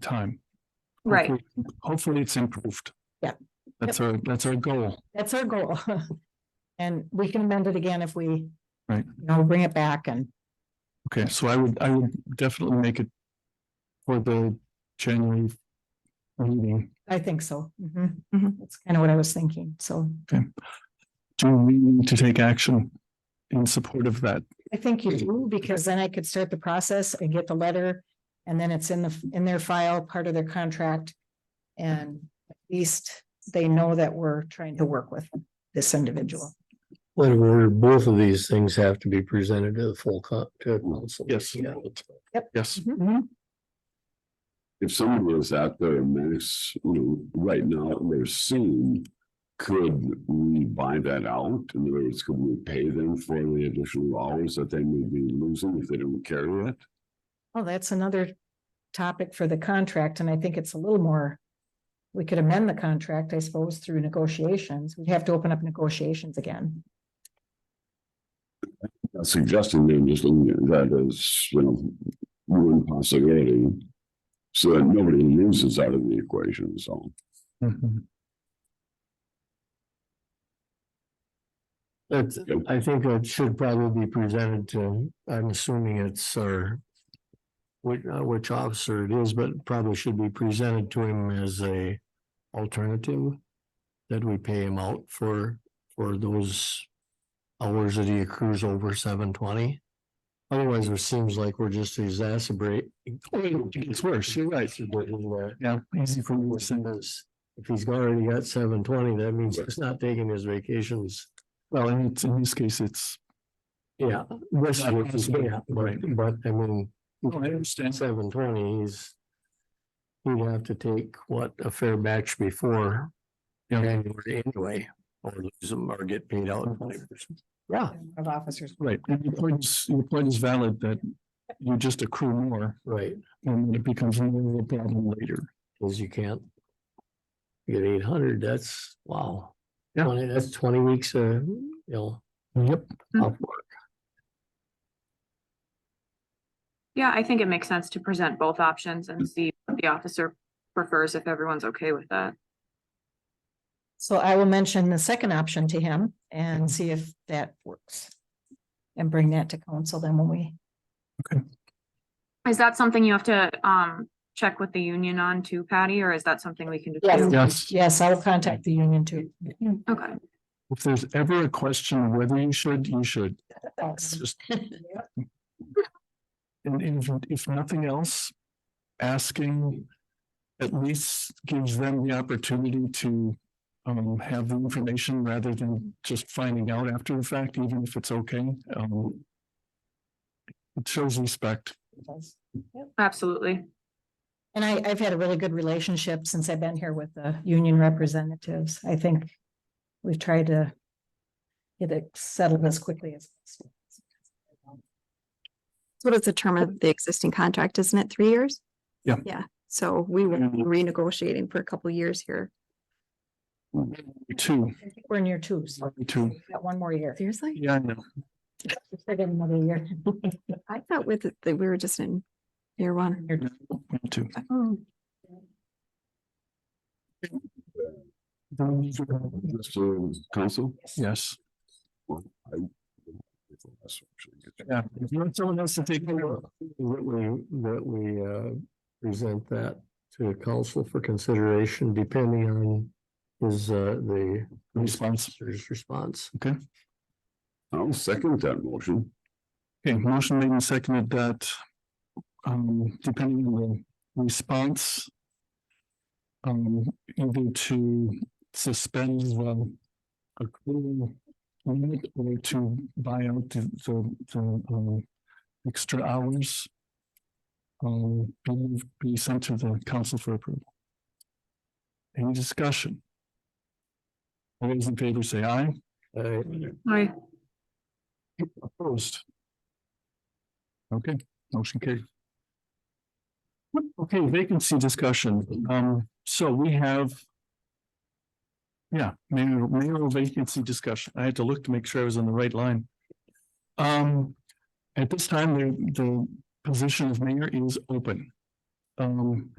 time. Right. Hopefully- Hopefully it's improved. Yeah. That's our, that's our goal. That's our goal. And we can amend it again if we. Right. You know, bring it back and Okay, so I would, I would definitely make it for the January meeting. I think so. Mhm. Mhm. That's kind of what I was thinking. So Do we need to take action in support of that? I think you do, because then I could start the process and get the letter. And then it's in the, in their file, part of their contract. And at least they know that we're trying to work with this individual. Wait a minute, both of these things have to be presented to the full co- to council. Yes. Yeah. Yes, if someone was out there and there's, you know, right now, and they're suing, could we buy that out? In other words, could we pay them for the additional hours that they may be losing if they don't carry it? Oh, that's another topic for the contract, and I think it's a little more. We could amend the contract, I suppose, through negotiations. We'd have to open up negotiations again. Not Suggesting they're just looking at that as, you know, one possibility. So that nobody loses out of the equation, so. Mhm. That's, I think it should probably be presented to, I'm assuming it's our. Which, uh, which officer it is, but probably should be presented to him as a alternative. That we pay him out for, for those hours that he accrues over seven twenty. Otherwise, it seems like we're just exacerbate. it's worse, you're right. yeah, easy for you to say. Because If he's already got seven twenty, that means he's not taking his vacations. Well, and it's, in this case, it's, Yeah. Rest Not of it is, possible. yeah, but, but I mean, Oh, I understand. seven twenty, he's. He'd have to take what a fair batch before Yeah. January anyway, or lose them or get paid out Mm-hmm. twenty percent. Yeah, Of officers. right, and your point is, your point is valid that you just accrue more right, and it becomes more of a problem later. cause you can't. Get eight hundred, that's wow. Yeah. Twenty, that's twenty weeks, uh, you know. Yep. of work. Yeah, I think it makes sense to present both options and see what the officer prefers if everyone's okay with that. So I will mention the second option to him and see if that works. And bring that to council then when we, Is that something you have to um check with the union on too, Patty, or is that something we can just Yes. do? Yes. yes, I'll contact the union too. Okay, If there's ever a question whether you should, you should Thanks. just. And if, if nothing else, asking at least gives them the opportunity to um, have the information rather than just finding out after the fact, even if it's okay. Um, it shows respect. absolutely. And I, I've had a really good relationship since I've been here with the union representatives. I think we've tried to get it settled as quickly as possible. So What is the term of the existing contract? Isn't it three years? Yeah. Yeah, so we were renegotiating for a couple years here. Two, I think We're near two, so two. we've got one more year. Seriously? Yeah, I know. We've got Another year. I thought with, it that we were just in year one. Year two. Two. Just to counsel? Yes. Yeah. If you want someone else to take over. That we, that we, uh, present that to the council for consideration depending on his, uh, the. Response. His response. I'll second that motion. Okay, motion made and seconded that, um, depending on the response. Um, either to suspend the accrual limit or to buy out the, the, the, um, extra hours. Um, be, be sent to the council for approval. Any discussion? All those in favor say aye. Uh, Aye. Opposed? Okay, motion carried. Okay, vacancy discussion. Um, so we have. Yeah, mayor, mayoral vacancy discussion. I had to look to make sure I was on the right line. Um, at this time, the, the position of mayor is open. Um,